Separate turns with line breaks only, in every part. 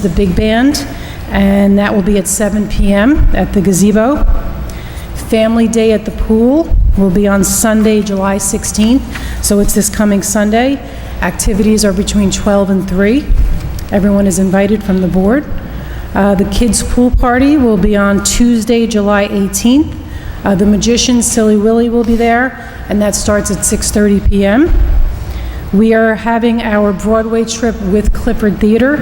the big band, and that will be at 7 PM at the gazebo. Family Day at the pool will be on Sunday, July 16th, so it's this coming Sunday. Activities are between 12 and 3. Everyone is invited from the board. Uh, The kids' pool party will be on Tuesday, July 18th. Uh, The magician Silly Willy will be there, and that starts at 6:30 PM. We are having our Broadway trip with Clifford Theater,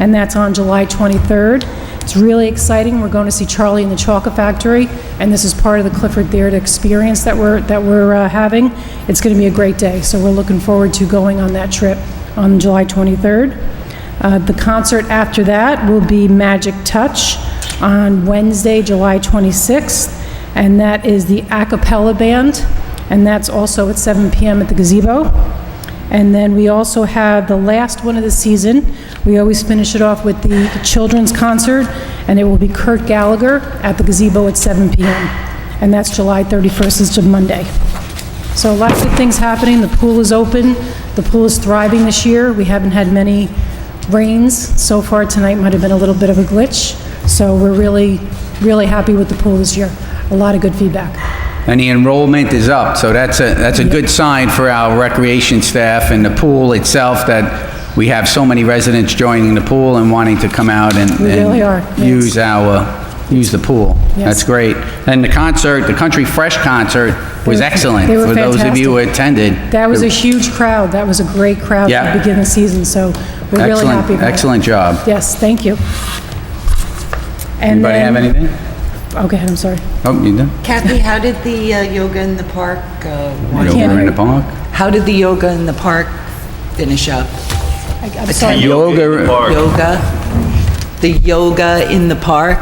and that's on July 23rd. It's really exciting. We're going to see Charlie and the Chocolate Factory, and this is part of the Clifford Theater experience that we're, that we're uh, having. It's going to be a great day, so we're looking forward to going on that trip on July 23rd. Uh, The concert after that will be Magic Touch on Wednesday, July 26th, and that is the a cappella band, and that's also at 7 PM at the gazebo. And then we also have the last one of the season. We always finish it off with the children's concert, and it will be Kurt Gallagher at the gazebo at 7 p.m. And that's July 31st, it's a Monday. So lots of things happening. The pool is open. The pool is thriving this year. We haven't had many rains so far. Tonight might have been a little bit of a glitch. So we're really, really happy with the pool this year. A lot of good feedback.
And the enrollment is up, so that's a, that's a good sign for our recreation staff and the pool itself, that we have so many residents joining the pool and wanting to come out and...
We really
and
are, yes.
Use our, use the pool. That's
Yes.
great. And the concert, the Country Fresh concert was
They were-
excellent.
they were
For those of you who attended.
That was a huge crowd. That was a great crowd
Yeah.
to begin the season, so we're really
Excellent-
happy about it.
Excellent job.
Yes, thank you. And
Anybody have
then-
anything?
Oh, go ahead, I'm sorry.
Oh, you done?
Kathy, how did the uh, yoga in the park, uh,
Over
one-
can't
in
hear
the
you.
park?
how did the yoga in the park finish up?
I- I'm sorry.
Yoga,
Yoga? The yoga in the park?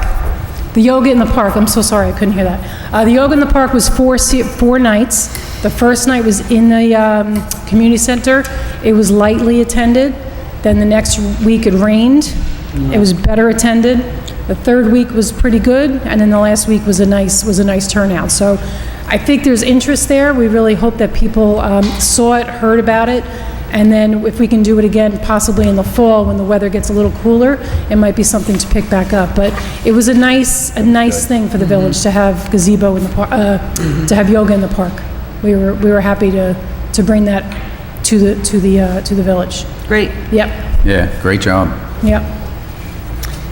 The yoga in the park, I'm so sorry, I couldn't hear that. Uh, The yoga in the park was four, se- four nights. The first night was in the um, community center. It was lightly attended. Then the next week it rained. It was better attended. The third week was pretty good, and then the last week was a nice, was a nice turnout. So I think there's interest there. We really hope that people um, saw it, heard about it, and then if we can do it again, possibly in the fall, when the weather gets a little cooler, it might be something to pick back up. But it was a nice, a nice thing for the village to have gazebo in the park, to have yoga in the park. We were, we were happy to, to bring that to the, to the, uh, to the village.
Great.
Yep.
yeah, great job.
Yep.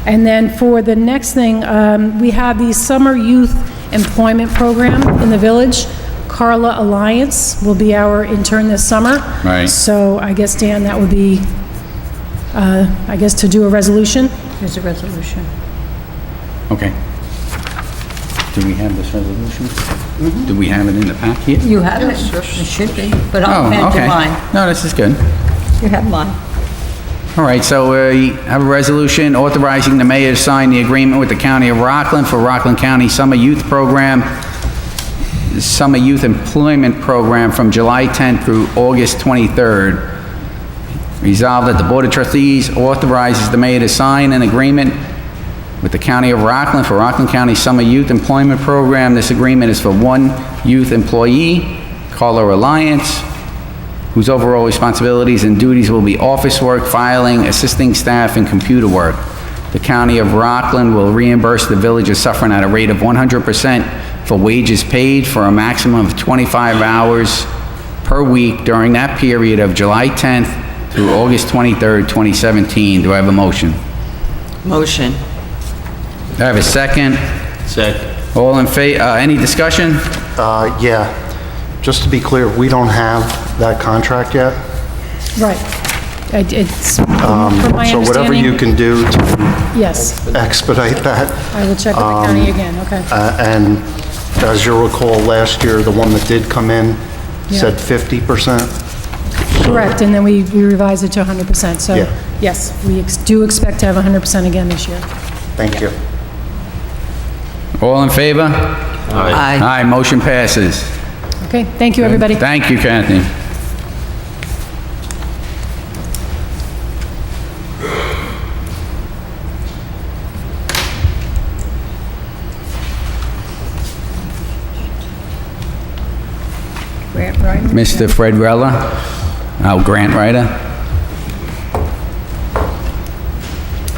And then for the next thing, um, we have the Summer Youth Employment Program in the village. Carla Alliance will be our intern this summer.
Right.
So I guess, Dan, that would be, uh, I guess, to do a resolution?
There's a resolution.
Okay. Do we have this resolution? Do we have it in the pack here?
You have it? It should be, but I'll
Oh,
hand
okay.
you mine.
No, this is good.
You have mine.
All right, so we have a resolution authorizing the mayor to sign the agreement with the county of Rockland for Rockland County Summer Youth Program, Summer Youth Employment Program from July 10th through August 23rd. Resolved that the Board of Trustees authorizes the mayor to sign an agreement with the County of Rockland for Rockland County Summer Youth Employment Program. This agreement is for one youth employee, Carla Reliance, whose overall responsibilities and duties will be office work, filing, assisting staff, and computer work. The County of Rockland will reimburse the Village of Suffering at a rate of 100% for wages paid for a maximum of 25 hours per week during that period of July 10th through August 23rd, 2017. Do I have a motion?
Motion.
Do I have a second?
Second.
All in fa, uh, any discussion?
Uh, yeah. Just to be clear, we don't have that contract yet.
Right. I- It's, from my
Um, So whatever you
understanding,
can do to
yes.
expedite that.
I will check with the county again, okay.
Uh, And as you'll recall, last year, the one that did come in said
Yeah.
50%.
Correct, and then we we revised it to 100%. So,
Yeah.
yes, we ex- do expect to have 100% again this year.
Thank you.
All in favor?
Aye.
Aye, motion passes.
Okay, thank you, everybody.
Thank you, Kathy.
Grant Wright?
Mr. Fred Rella, our grant writer.